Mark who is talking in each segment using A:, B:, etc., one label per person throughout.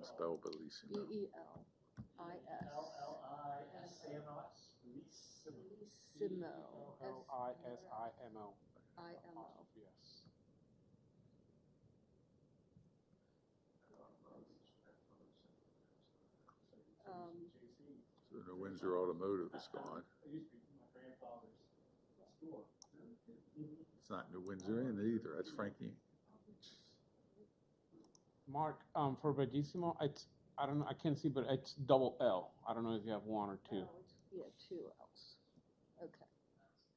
A: Spell Belize,
B: B E L I
C: L
B: S.
C: L I S A M O S, Bellissimo.
B: Bellissimo.
C: B E L
B: S-
C: L I S I M O.
B: I M O.
C: Apostrophe S.
B: Um,
C: JC.
A: so the Windsor Automotive is gone.
C: It used to be my grandfather's store.
A: It's not New Windsor Inn either, that's Frankie.
D: Mark, um, for Bellissimo, it's, I don't know, I can't see, but it's double L. I don't know if you have one or
C: Oh,
D: two.
B: yeah, two L's. Okay.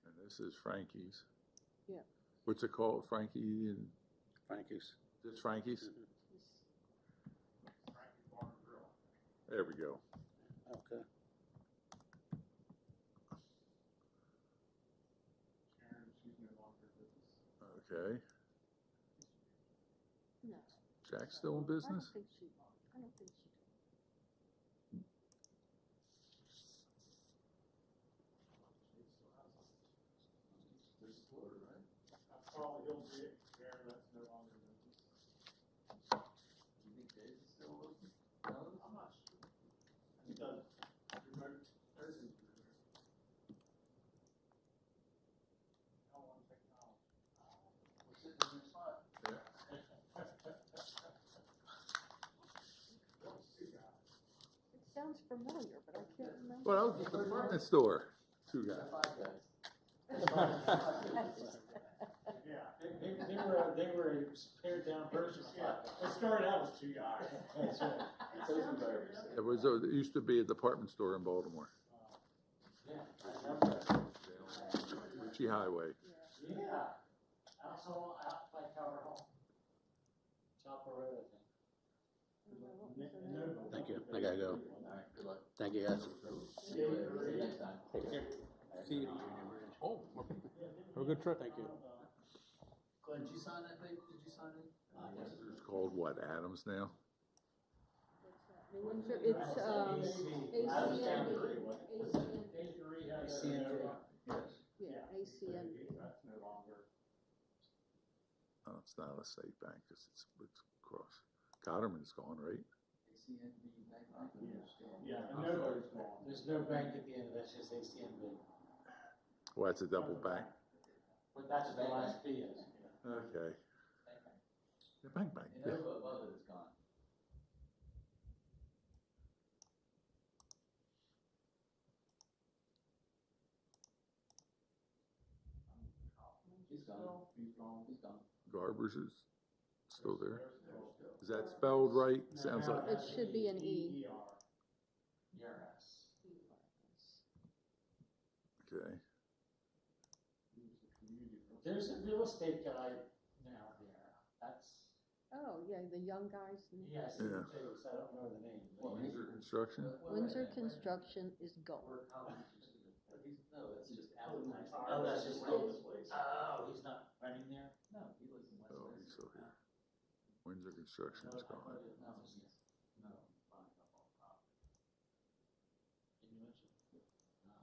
A: And this is Frankie's.
B: Yeah.
A: What's it called, Frankie and,
E: Frankie's.
A: just Frankie's?
C: Frankie Bar and Grill.
A: There we go.
E: Okay.
C: Karen, she's no longer with us.
A: Okay.
B: No.
A: Jack's still in
B: I don't
A: business?
B: think she, I don't think she did.
C: Uh, Carl Hillgren, Karen, that's no longer with us. I'm not sure. He does remote nursing. How long technology? We're sitting in this spot. Don't see that.
B: It sounds familiar, but I can't remember.
A: Well, that was the department store, two guys.
C: Yeah, they, they, they were, they were a pared down version, yeah, it started out as two guys. That's right.
A: It was, a- it used to be a department store in Baltimore,
C: Yeah, I remember.
A: Ritchie Highway.
C: Yeah, also out by Tower Hall. Chopper Road, I think.
E: Thank you. I gotta go. Thank you, guys. Take care.
D: See you. Oh, have a good trip. Thank you.
F: Glenn, did you sign that thing? Did you sign it?
A: It's called what, Adams now?
B: New Windsor, it's, um, ACND. ACND, yeah, ACND.
C: That's no longer.
A: Oh, it's not a state bank, 'cause it's, it's across. Cotterman's gone, right?
C: Yeah, and nobody's gone.
F: There's no bank at the end of that, it's just ACNB.
A: Well, it's a double bank.
F: But that's the last B is.
A: Okay. The bank bank, Uh, yeah.
F: above it is gone. He's gone.
C: He's gone.
F: He's gone.
A: Garbers is still there.
C: There's still-
A: Is that spelled right?
C: No,
A: Sounds
C: no,
A: like,
B: It should be an E.
C: EER.
F: Yes.
A: okay.
C: He was a community person.
F: There's a real estate guy now there, that's,
B: Oh, yeah, the young guys. in-
F: yes, he
A: Yeah.
F: is. I don't know the name. but he's-
A: Windsor Construction?
B: Windsor Construction is gone.
F: No, that's just
C: Alan.
F: Oh, that's just.
C: Alan's place.
F: Oh, he's not running there? No, he lives in
A: Oh, he's still here. Windsor Construction is gone.
F: No, buying up all property. Can you mention? No.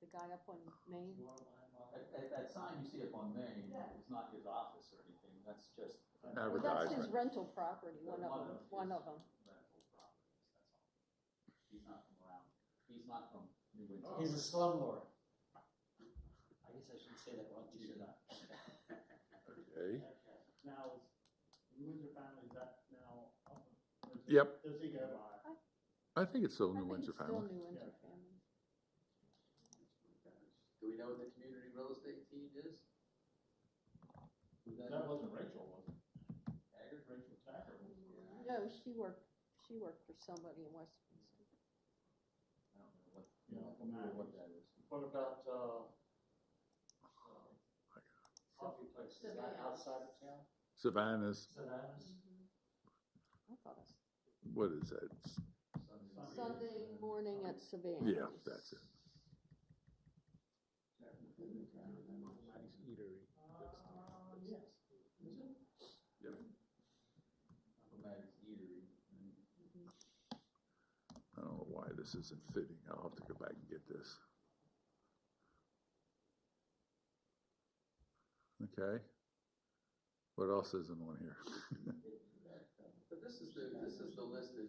B: The guy up on Main,
F: You are buying all. That, that, that sign you see up on Main, it's not his office or anything, that's just.
B: well, that's his
A: Advertisement.
B: rental property, one of them, one
F: his
B: of them.
F: rental properties, that's all. He's not from around, he's not from New Windsor.
C: He's a slumlord.
F: I guess I shouldn't say that wrong, you should not.
A: Okay.
C: Now, is the Windsor family, is that now? up? Or is it-
A: Yep.
C: Does he go by?
A: I think it's still
B: I
A: New
B: think
A: Windsor
B: it's still
A: family.
B: New Windsor family.
G: Do we know what the community real estate team is?
C: That wasn't Rachel, was it? Taggart, Rachel Taggart.
B: No, she worked, she worked for somebody in West Windsor.
F: I don't know what,
C: You know,
F: I don't know what that is.
C: What about, uh,
F: Coffee place, is that outside of town?
A: Savannah's,
F: Savannah's?
B: I thought it
A: what is that? It's-
B: was Sunday morning at Savannah.
A: Yeah, that's it.
D: Nice eatery.
F: Uncle Maggie's Eatery.
A: I don't know why this isn't fitting. I'll have to go back and get this. Okay. What else isn't on here?
G: But this is the, this is the list that